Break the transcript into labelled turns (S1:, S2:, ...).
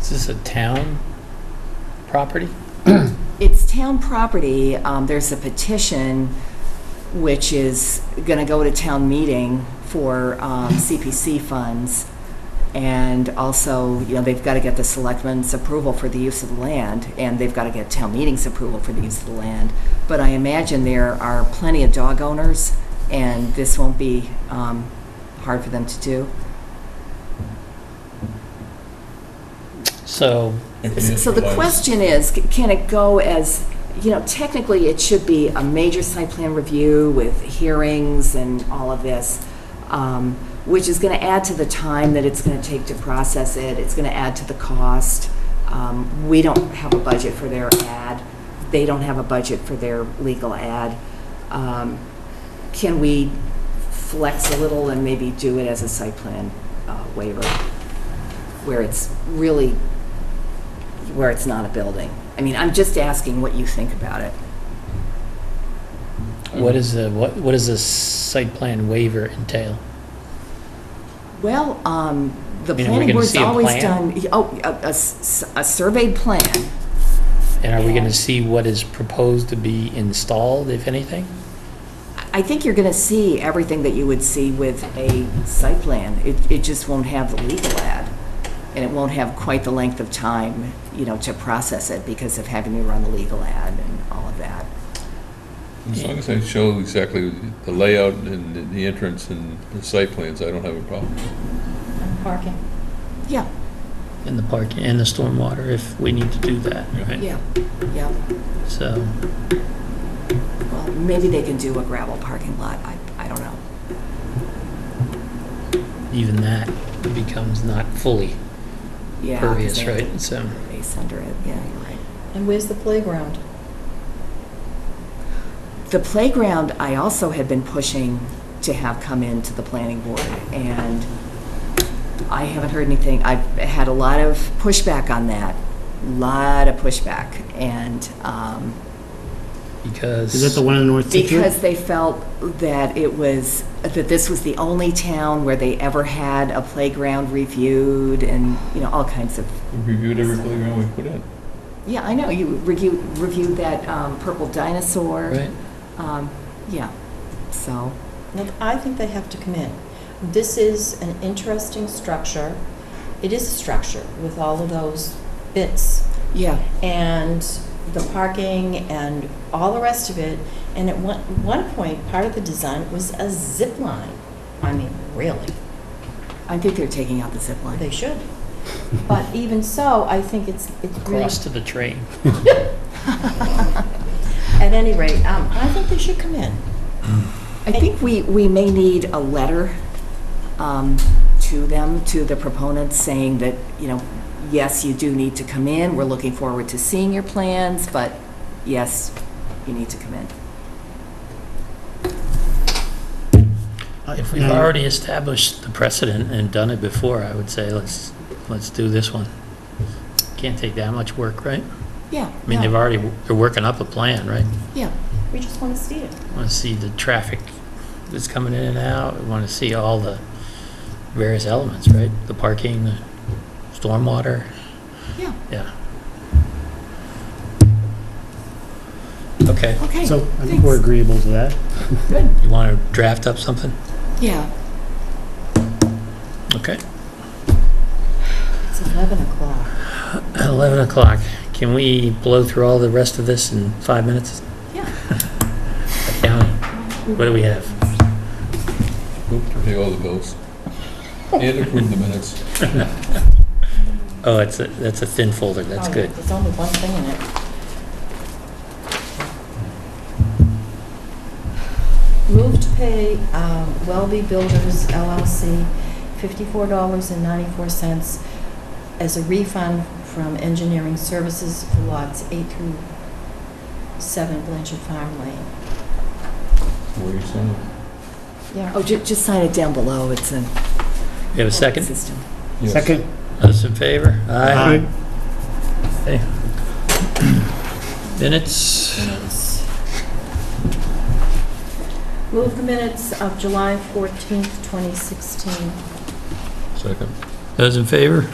S1: Is this a town property?
S2: It's town property. Um, There's a petition which is going to go to town meeting for um, CPC funds. And also, you know, they've got to get the selectmen's approval for the use of the land, and they've got to get town meeting's approval for the use of the land. But I imagine there are plenty of dog owners, and this won't be um, hard for them to do.
S1: So,
S2: So the question is, c- can it go as, you know, technically, it should be a major site plan review with hearings and all of this, um, which is going to add to the time that it's going to take to process it, it's going to add to the cost. Um, We don't have a budget for their ad, they don't have a budget for their legal ad. Um, Can we flex a little and maybe do it as a site plan uh, waiver, where it's really where it's not a building. I mean, I'm just asking what you think about it.
S1: what is the, what, what does this site plan waiver entail?
S2: Well, um, the
S1: I mean, are we
S2: planning
S1: gonna
S2: board's
S1: see a
S2: always
S1: plan?
S2: done, oh, a, a s- a surveyed plan.
S1: And are we
S2: Yeah.
S1: gonna see what is proposed to be installed, if anything?
S2: I think you're gonna see everything that you would see with a site plan. It, it just won't have the legal ad, and it won't have quite the length of time, you know, to process it because of having to run the legal ad and all of that.
S3: As long as I show exactly the layout and the- the entrance and the site plans, I don't have a problem.
S4: Parking.
S2: Yeah,
S1: In the park and the stormwater, if we need to do that, right?
S2: yeah, yeah.
S1: So,
S2: Well, maybe they can do a gravel parking lot. I, I don't know.
S1: even that becomes not fully
S2: Yeah. 'cause they
S1: pervious,
S2: have to
S1: right? So,
S2: Base under it, yeah, you're right.
S4: And where's the playground?
S2: The playground, I also had been pushing to have come into the planning board, and I haven't heard anything. I've had a lot of pushback on that, lot of pushback, and, um,
S1: because.
S5: Is that the one in North Situate?
S2: because they felt that it was, that this was the only town where they ever had a playground reviewed, and, you know, all kinds of,
S3: We reviewed every playground we put in.
S2: yeah, I know, you reviewed, reviewed that um, purple dinosaur.
S1: Right?
S2: Um, Yeah, so,
S4: Look, I think they have to come in. This is an interesting structure. It is a structure with all of those bits
S2: yeah.
S4: and the parking and all the rest of it. And at one, one point, part of the design was a zip line. I mean, really?
S2: I think they're taking out the zip line.
S4: They should. But even so, I think it's, it's really
S1: Cross to the train.
S4: At any rate, um, I think they should come in.
S2: I think we, we may need a letter um, to them, to the proponents, saying that, you know, yes, you do need to come in, we're looking forward to seeing your plans, but yes, you need to come in.
S1: Uh, If we've already established the precedent and done it before, I would say let's, let's do this one. Can't take that much work, right?
S2: Yeah.
S1: I mean, they've already, they're working up a plan, right?
S2: Yeah,
S4: We just want to see it.
S1: Want to see the traffic that's coming in and out, want to see all the various elements, right? The parking, the stormwater,
S2: yeah,
S1: yeah. Okay,
S2: okay.
S5: So I think we're
S2: thanks.
S5: agreeable to that.
S2: Good,
S1: you want to draft up something?
S2: yeah.
S1: Okay.
S4: It's 11 o'clock.
S1: 11 o'clock. Can we blow through all the rest of this in five minutes?
S2: Yeah.
S1: County. What do we have?
S3: Move to pay all the bills. And approve the minutes.
S1: Oh, it's a, that's a thin folder, that's
S4: Oh,
S1: good.
S4: There's only one thing in it. Move to pay um, Wellbe Builders LLC $54.94 as a refund from engineering services for lots 8 through 7 Blanchard Farm Lane.
S3: Where you sign?
S4: Yeah.
S2: Oh, ju- just sign it down below, it's a
S1: You have a second?
S2: system.
S3: Yes.
S5: Second?
S1: Those in favor?
S5: Aye.
S1: Minutes?
S4: Minutes. Move the minutes of July 14th, 2016.
S3: Second.
S1: Those in favor?